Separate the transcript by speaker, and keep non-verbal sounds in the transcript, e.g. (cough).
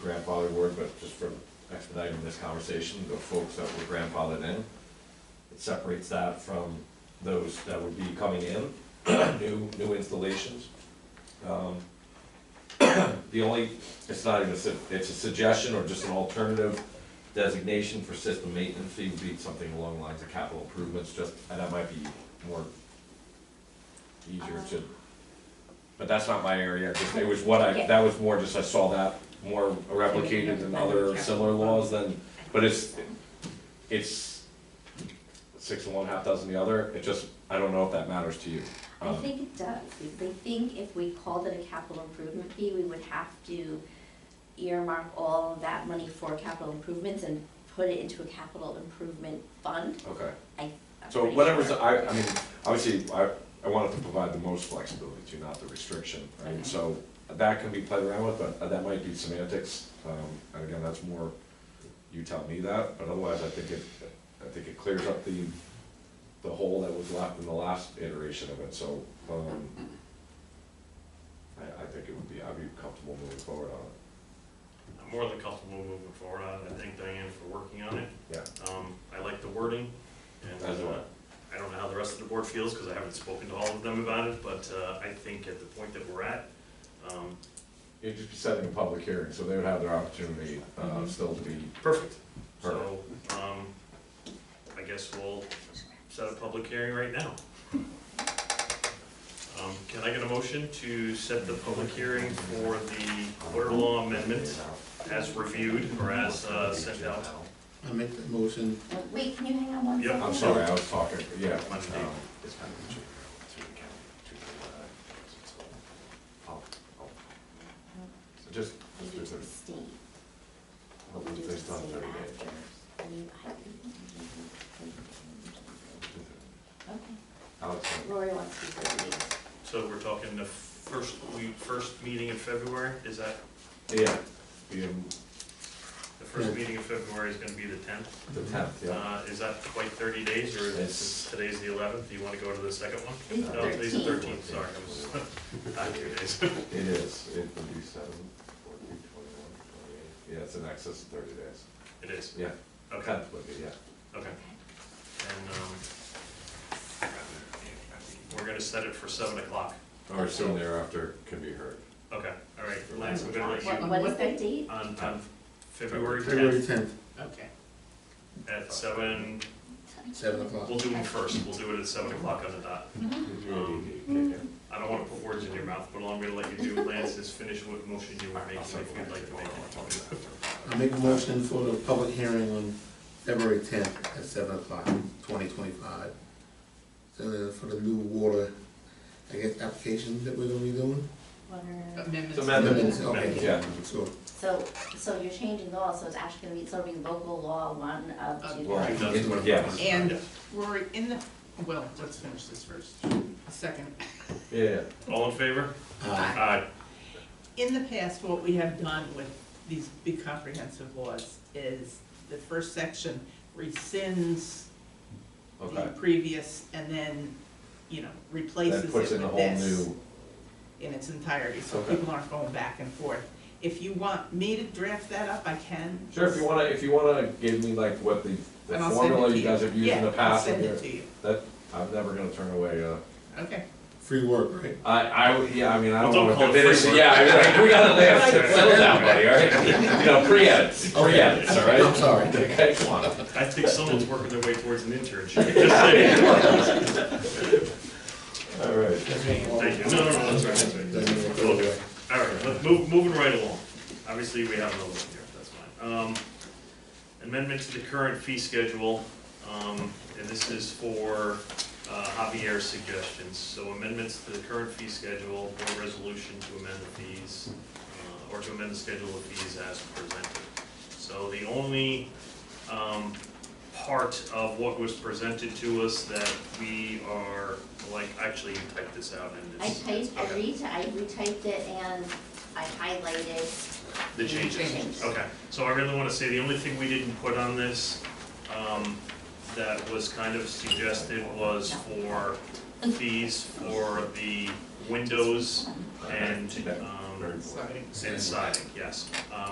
Speaker 1: grandfather word, but just for expediting this conversation, the folks that were grandfathered in, it separates that from those that would be coming in, (clears throat) new, new installations. Um, (clears throat) The only, it's not even, a su- it's a suggestion or just an alternative designation for system maintenance fee would be something along the lines of capital improvements, just, and that might be more easier to, but that's not my area, just, it was what I,
Speaker 2: Yeah.
Speaker 1: that was more just I saw that more replicated in other similar laws than, but it's, it's six and one, half dozen the other, it just, I don't know if that matters to you.
Speaker 2: I
Speaker 1: Um,
Speaker 2: think it does, because I think if we called it a capital improvement fee, we would have to earmark all of that money for capital improvements and put it into a capital improvement fund.
Speaker 1: Okay.
Speaker 2: I, I'm
Speaker 1: So
Speaker 2: pretty
Speaker 1: whatever's,
Speaker 2: sure.
Speaker 1: I, I mean, obviously, I, I wanted to provide the most flexibility to, not the restriction, right?
Speaker 2: Okay.
Speaker 1: So that can be played around with, but uh, that might be semantics, um, and again, that's more, you tell me that, but otherwise, I think it, I think it clears up the, the hole that was left in the last iteration of it, so, um, I, I think it would be, I'd be comfortable moving forward on it,
Speaker 3: I'm more than comfortable moving forward on it, I thank Diane for working on it.
Speaker 1: Yeah.
Speaker 3: Um, I like the wording, and,
Speaker 1: As do I.
Speaker 3: uh, I don't know how the rest of the board feels, because I haven't spoken to all of them about it, but, uh, I think at the point that we're at, um,
Speaker 1: It'd just be setting a public hearing, so they would have their opportunity, uh,
Speaker 2: Mhm.
Speaker 1: still to be.
Speaker 3: perfect. So, um, I guess we'll set a public hearing right now. Um, can I get a motion to set the public hearing for the water law amendment as reviewed, or as, uh, sent out?
Speaker 4: I make that motion.
Speaker 2: Wait, can you hang on one
Speaker 3: Yeah,
Speaker 2: second?
Speaker 1: I'm sorry, I was talking, yeah.
Speaker 3: Monday.
Speaker 1: um, Just,
Speaker 2: You
Speaker 1: just
Speaker 2: need
Speaker 1: there's
Speaker 2: to
Speaker 1: a-
Speaker 2: abstain.
Speaker 1: hope
Speaker 2: You
Speaker 1: that
Speaker 2: need
Speaker 1: they
Speaker 2: to
Speaker 1: stop
Speaker 2: abstain
Speaker 1: there again.
Speaker 2: after. I mean, I- Okay,
Speaker 1: Alex,
Speaker 2: Lori wants to go to meetings.
Speaker 3: So we're talking the first, we, first meeting in February, is that,
Speaker 1: Yeah, um,
Speaker 3: the first
Speaker 4: Yeah.
Speaker 3: meeting in February is gonna be the tenth?
Speaker 1: the tenth, yeah.
Speaker 3: Uh, is that quite thirty days, or
Speaker 1: It's-
Speaker 3: is today's the eleventh, do you wanna go to the second one?
Speaker 2: It's
Speaker 3: No, today's the
Speaker 2: 13.
Speaker 3: thirteenth, sorry, I (laughs) was, not two days.
Speaker 1: It is, it would be seven, fourteen, twenty-one, twenty-eight, yeah, it's in excess of thirty days.
Speaker 3: It is,
Speaker 1: Yeah,
Speaker 3: okay,
Speaker 1: tenth would be, yeah.
Speaker 3: okay,
Speaker 2: Okay.
Speaker 3: and, um, we're gonna set it for seven o'clock,
Speaker 1: Or soon thereafter can be heard.
Speaker 3: okay, all right, Lance, we're gonna let
Speaker 2: What,
Speaker 3: you,
Speaker 2: what is that date?
Speaker 3: on, on February
Speaker 4: February
Speaker 3: tenth
Speaker 4: tenth,
Speaker 5: Okay.
Speaker 3: at seven,
Speaker 4: seven o'clock.
Speaker 3: we'll do them first, we'll do it at seven o'clock on the dot.
Speaker 1: Um,
Speaker 3: I don't wanna put words in your mouth, but all I'm gonna let you do, Lance, is finish what motion you were making, if you'd like to make it.
Speaker 4: I make a motion for the public hearing on February tenth at seven o'clock, twenty twenty-five. For the new water, I guess, application that we're gonna be doing.
Speaker 2: Water.
Speaker 5: Amendments.
Speaker 1: Amendments.
Speaker 4: Okay,
Speaker 1: Yeah.
Speaker 4: So,
Speaker 2: So, so you're changing the law, so it's actually gonna be, it's gonna be local law one of two.
Speaker 1: Well,
Speaker 2: three.
Speaker 3: That's
Speaker 1: it- yes.
Speaker 5: And Rory, in the, well, let's finish this first. Second,
Speaker 1: Yeah,
Speaker 3: All in favor?
Speaker 4: uh,
Speaker 3: Aye.
Speaker 5: in the past, what we have done with these big comprehensive laws is the first section rescinds the
Speaker 1: okay.
Speaker 5: previous and then, you know, replaces
Speaker 1: That
Speaker 5: it with
Speaker 1: puts
Speaker 5: this.
Speaker 1: in a whole new,
Speaker 5: in its entirety, so
Speaker 1: Okay.
Speaker 5: people aren't going back and forth. If you want me to draft that up, I can.
Speaker 1: sure, if you wanna, if you wanna give me like what the, the
Speaker 5: And I'll send it
Speaker 1: formula
Speaker 5: to
Speaker 1: you guys have used in the past.
Speaker 5: Yeah, I'll
Speaker 1: and
Speaker 5: send it
Speaker 1: you're-
Speaker 5: to you,
Speaker 1: That, I'm never gonna turn away, uh,
Speaker 5: okay.
Speaker 4: free work, right?
Speaker 1: I, I, would- yeah, I mean, I
Speaker 3: Well,
Speaker 1: don't
Speaker 3: don't
Speaker 1: wanna
Speaker 3: call it
Speaker 1: commit,
Speaker 3: free
Speaker 1: it-
Speaker 3: work.
Speaker 1: yeah, I mean, like, we gotta live, settle down, buddy, all right? You know, pre-edits, pre-edits, all right?
Speaker 4: I'm sorry.
Speaker 1: (laughs) Okay, come on.
Speaker 3: I think someone's working their way towards an internship, just saying.
Speaker 1: All right.
Speaker 3: Thank you, no, no, no, that's right, that's right. We'll do it. All right, look, move, moving right along, obviously, we have another one here, that's fine. Um, amendment to the current fee schedule, um, and this is for uh, Javier's suggestions. So amendments to the current fee schedule, board resolution to amend the fees, uh, or to amend the schedule of fees as presented. So the only, um, part of what was presented to us that we are, like, actually, you typed this out and
Speaker 2: I
Speaker 3: it's
Speaker 2: typed, I
Speaker 3: Okay.
Speaker 2: re, I retyped it and I highlighted.
Speaker 3: the changes.
Speaker 2: Changes.
Speaker 3: Okay, so I really wanna say, the only thing we didn't put on this, um, that was kind of suggested was for fees for the windows and, um,
Speaker 5: Sorry.
Speaker 3: and siding, yes. Um,